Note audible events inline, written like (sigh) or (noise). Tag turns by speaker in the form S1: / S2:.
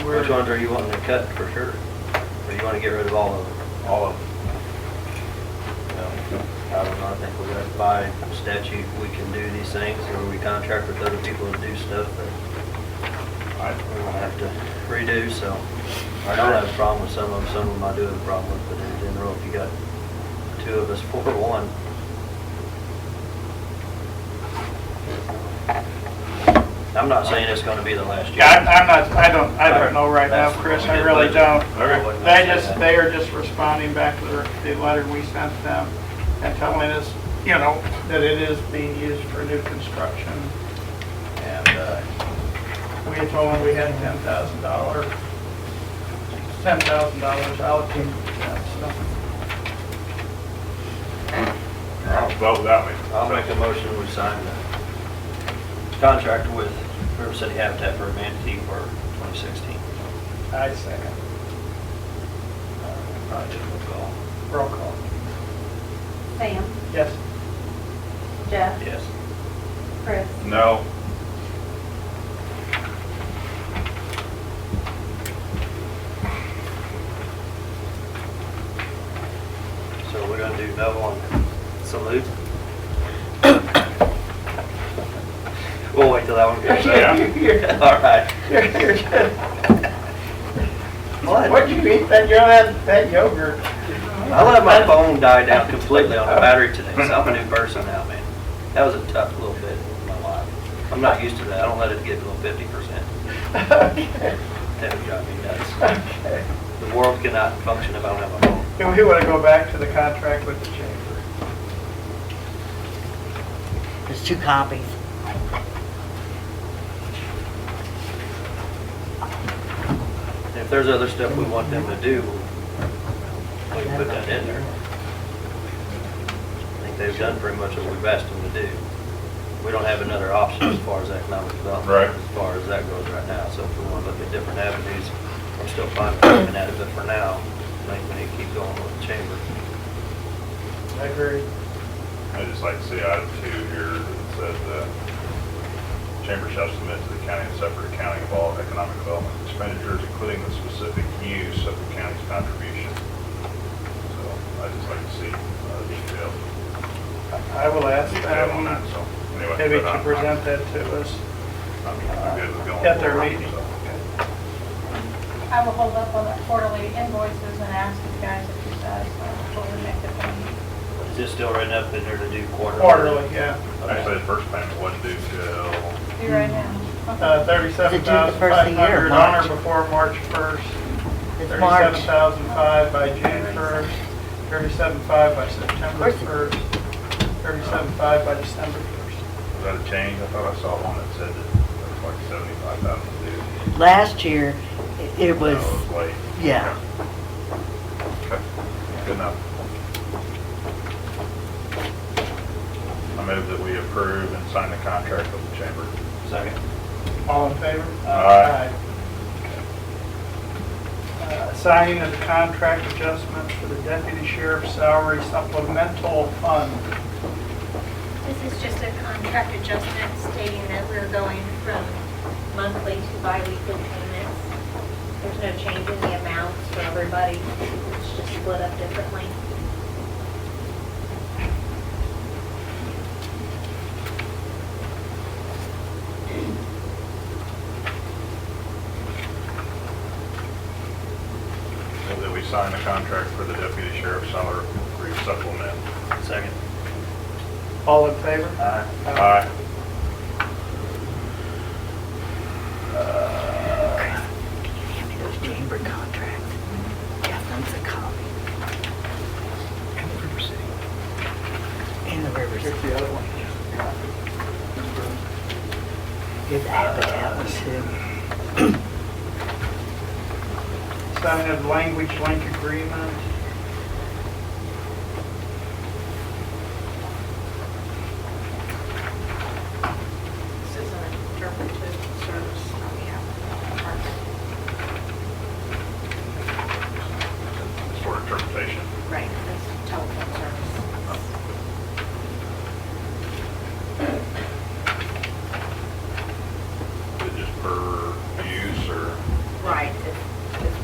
S1: Which
S2: we're,
S1: ones are you wanting to cut for sure? Or you want to get rid of all of them?
S2: all of them.
S1: No. I don't know, I think we're gonna, by statute, we can do these things, or we contract with other people to do stuff that
S2: I,
S1: we're gonna have to redo, so. I don't have a problem with some of them, some of them I do have a problem with, but in general, if you got two of us (laughs) for one, I'm not saying it's gonna be the last year.
S3: Yeah, I'm- I'm not, I don't, I don't know right now, Chris, I really don't.
S2: Okay.
S3: They just, they are just responding back to the, the letter we sent them and telling us, you know, that it is being used for new construction. And, uh, we had told them we had ten thousand dollar, ten thousand dollars allocated to uh, that, so.
S2: I'll vote that way.
S1: I'll make a motion, we sign the contract with River City Habitat for Humanity for 2016.
S3: I second.
S1: Uh, Project will call.
S3: Roll call.
S4: Sam,
S3: Yes.
S4: Jeff,
S1: Yes.
S4: Chris,
S2: No,
S1: So we're gonna do no on salute? We'll wait till that one gets
S2: Yeah.
S3: (laughs)
S1: out. (laughs) All right.
S3: You're, you're good.
S1: What?
S3: What'd you eat that, you had that yogurt?
S1: I let my phone die down completely on the battery today, so I'm a new person now, man. That was a tough little bit of my life. I'm not used to that. I don't let it get below 50%.
S3: Okay,
S1: That would drive me nuts.
S3: okay.
S1: The world cannot function if I don't have a phone.
S3: Do we want to go back to the contract with the chamber?
S5: There's two copies.
S1: If there's other stuff we want them to do, we can put that in there. I think they've done pretty much what we've asked them to do. We don't have another option as far as economic
S2: Right.
S1: development, as far as that goes right now. So if we want to look at different avenues, I'm still fine with looking at it, but for now, I think we need to keep going with the chamber.
S3: I agree.
S2: I just like to see item two here that says the chamber shall submit to the county a separate accounting of all economic development expenditures, including the specific use of the county's contribution. So I just like to see uh, detail,
S3: I will ask
S2: detail on that,
S3: them
S2: so anyway.
S3: Um, maybe
S2: but
S3: to
S2: I'm-
S3: present that to us.
S2: I'm I'm good with going
S3: At their
S2: forward,
S3: meeting.
S2: so, okay.
S6: I will hold up on the quarterly invoices and ask you guys if you guys will make the payment.
S1: Is this still written up in there to do quarterly?
S3: Quarterly, yeah.
S2: Actually, the first payment wasn't due till
S6: Do right now. Okay.
S3: Uh, thirty-seven thousand
S5: first
S3: five
S5: of the year,
S3: hundred on
S5: March.
S3: or before March first.
S5: It's March.
S3: Thirty-seven thousand five by June first, thirty-seven five by September
S5: Where's it?
S3: first, thirty-seven five by December first.
S2: Was that a change? I thought I saw one that said that it was like seventy-five thousand due.
S5: Last year, it- it
S2: No,
S5: was,
S2: It was late.
S5: yeah.
S2: Okay. Okay. Good enough. I move that we approve and sign the contract with the chamber.
S1: Second.
S3: All in favor?
S2: Aye.
S3: Uh, Signing of the contract adjustment for the deputy sheriff's salary supplemental fund.
S7: This is just a contract adjustment stating that we're going from monthly to biweekly payments. There's no change in the amounts for everybody. It's just split up differently.
S2: Move that we sign the contract for the deputy sheriff's salary supplement.
S1: Second.
S3: All in favor?
S1: Aye.
S2: Aye.
S3: Oh.
S5: Give me those chamber contracts. Jeff wants a copy. And the River City.
S3: Here's the other one.
S5: Good habitat one too.
S3: Signing of language link agreement.